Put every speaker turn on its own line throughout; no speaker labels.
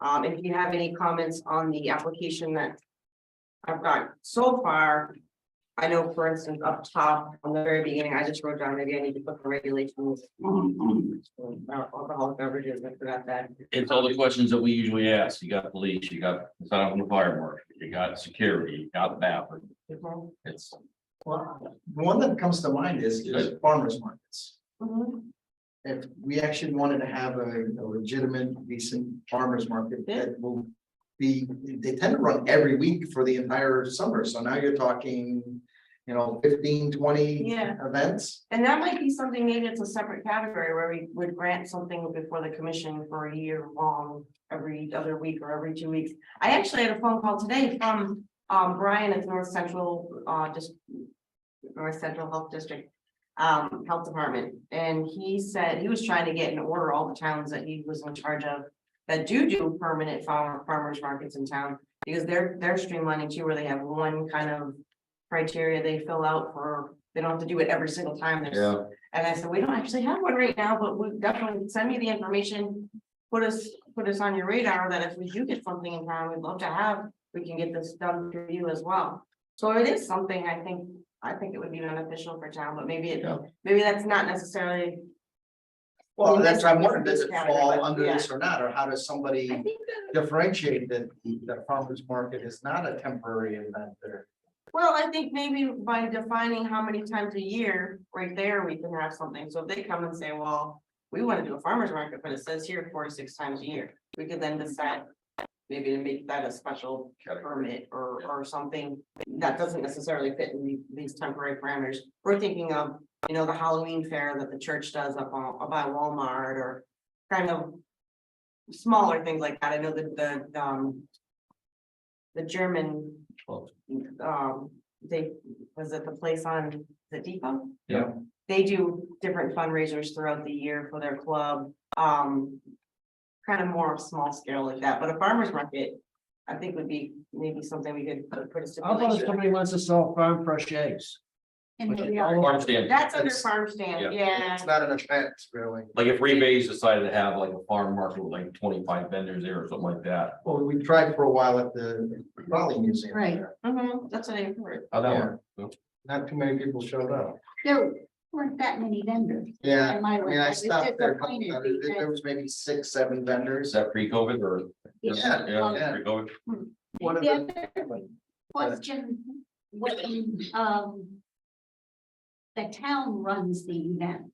Um, if you have any comments on the application that I've got so far. I know, for instance, up top, on the very beginning, I just wrote down, maybe I need to put the regulations
Mhm.
on alcoholic beverages, I forgot that.
It's all the questions that we usually ask. You got police, you got, it's not on the fire marshal, you got security, you got that.
Mhm.
It's,
Well, one that comes to mind is, is farmers markets. If we actually wanted to have a a legitimate decent farmers market that will be, they tend to run every week for the entire summer. So now you're talking, you know, 15, 20
Yeah.
events.
And that might be something, maybe it's a separate category where we would grant something before the commission for a year long, every other week or every two weeks. I actually had a phone call today from um Brian at North Central, uh, just. North Central Health District, um, Health Department, and he said he was trying to get in order all the towns that he was in charge of. That do do permanent farmer farmers markets in town, because they're they're streamlining too, where they have one kind of. Criteria they fill out for, they don't have to do it every single time. There's
yeah,
and I said, we don't actually have one right now, but we definitely send me the information. Put us, put us on your radar that if we do get something in town, we'd love to have, we can get this done through you as well. So it is something I think, I think it would be beneficial for town, but maybe it,
Yeah.
maybe that's not necessarily.
Well,
Yeah,
that's, what
that's-
I'm wondering, does it
that's-
fall
yeah.
under this or not? Or how does
I
somebody
think uh, that,
differentiate that the farmers market is not a temporary event there?
well, I think maybe by defining how many times a year, right there, we can have something. So if they come and say, well, we want to do a farmer's market, but it says here four to six times a year, we could then decide. Maybe to make that a special permit or, or something that doesn't necessarily fit in the- these temporary parameters. We're thinking of, you know, the Halloween fair that the church does up on, up by Walmart or kind of smaller things like that. I know that the, um, the German, um, they, was it the place on the depot?
Yeah.
They do different fundraisers throughout the year for their club, um, kind of more small scale like that, but a farmer's market, I think would be maybe something we could put- put a
How about if
stipulation.
somebody wants to sell farm fresh eggs?
And
Which is
we are-
all-
farm stand.
That's under
That's-
farm stand, yeah.
It's not an event, really.
Like if Rebays decided to have like a farm market with like twenty-five vendors there or something like that.
Well, we tried for a while at the Raleigh Museum.
Right.
there.
Mhm, that's what I heard.
How that
Yeah.
work?
Not too many people showed up.
There weren't that many vendors.
Yeah,
in my
I
way.
mean,
I
I
was
stopped there. a couple
disappointed
times. There there
because-
was maybe six, seven
Is
vendors.
that pre-COVID or?
Yeah, yeah.
Pre-COVID?
One of
The
the,
other Question, when, um. The town runs the event,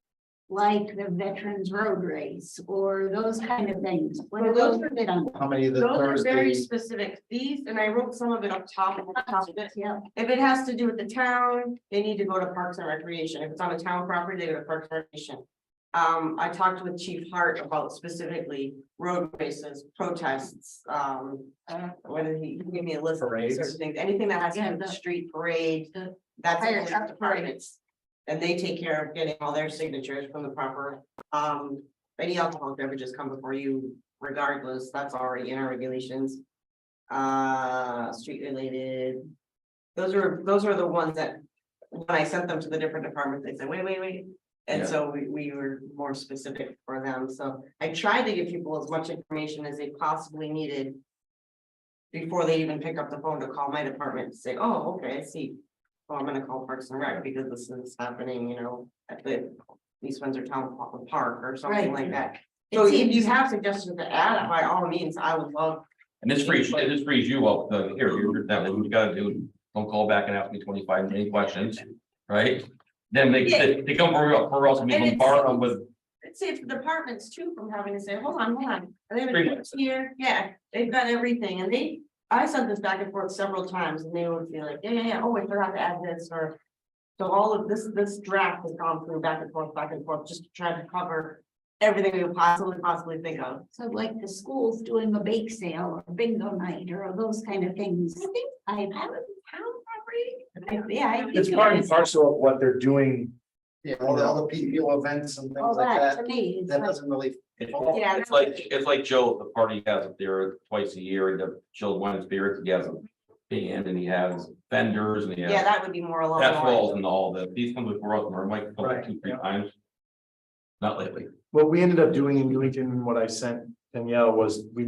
like the Veterans Road Race or those kind of things. What are
Well, those
those forbid on?
how many of the
Those are very
Thursdays?
specific, these, and I wrote some of it up top. at the top of it.
Yeah,
If it has to do with the town, they need to go to Parks and Recreation. If it's on a town property, they go to Parks and Recreation. Um, I talked with Chief Hart about specifically road races, protests, um, uh, what did he, he gave me a list of
Parades.
certain things, anything that has to do with the
Yeah.
street parade.
The
That's
fire
all
truck
departments. And they take care of getting all their signatures from the proper, um, any alcoholic beverages come before you regardless, that's already in our regulations. Uh, street related. Those are, those are the ones that, when I sent them to the different departments, they said, wait, wait, wait. And
Yeah.
so we, we were more specific for them, so I tried to give people as much information as they possibly needed. Before they even pick up the phone to call my department to say, oh, okay, I see. Well, I'm gonna call Parks and Rec because this is happening, you know, at the East Windsor Town Pa- Park or something
Right.
like that.
It
So if
seems-
you have suggestions to add, by all means, I would love,
And this frees, and this frees you up, the, here, you're, that, what you gotta do, don't call back and ask me twenty-five million questions, right? Then they, they they come for, us- for us, and we
And it's-
bombard them with,
it saves the departments too from having to say, hold on, hold on. Are they
Three
having
minutes.
kids here? Yeah, they've got everything and they, I sent this back and forth several times and they would be like, yeah, yeah, yeah, oh, I forgot to add this or. So all of this, this draft has gone through back and forth, back and forth, just to try to cover everything we could possibly, possibly think of.
So like the schools doing a bake sale or bingo night or those kind of things.
I think
I haven't town
I-
property.
Yeah. I think
It's
it
part and
is.
parcel of what they're doing.
Yeah, all the, all the PPO events and
All
things like
that
that.
to me is
That
like,
doesn't really,
Yeah.
it's like, it's like Joe, at the party he has up there twice a year, and the chilled wine and spirits, he has a band, and he has vendors, and he
Yeah,
has,
that would be more along. the
that
lines.
falls into all the, these come before us, and our mic
Right,
comes two, three times. Not lately.
What we ended up doing in Newington, and what I sent Danielle was we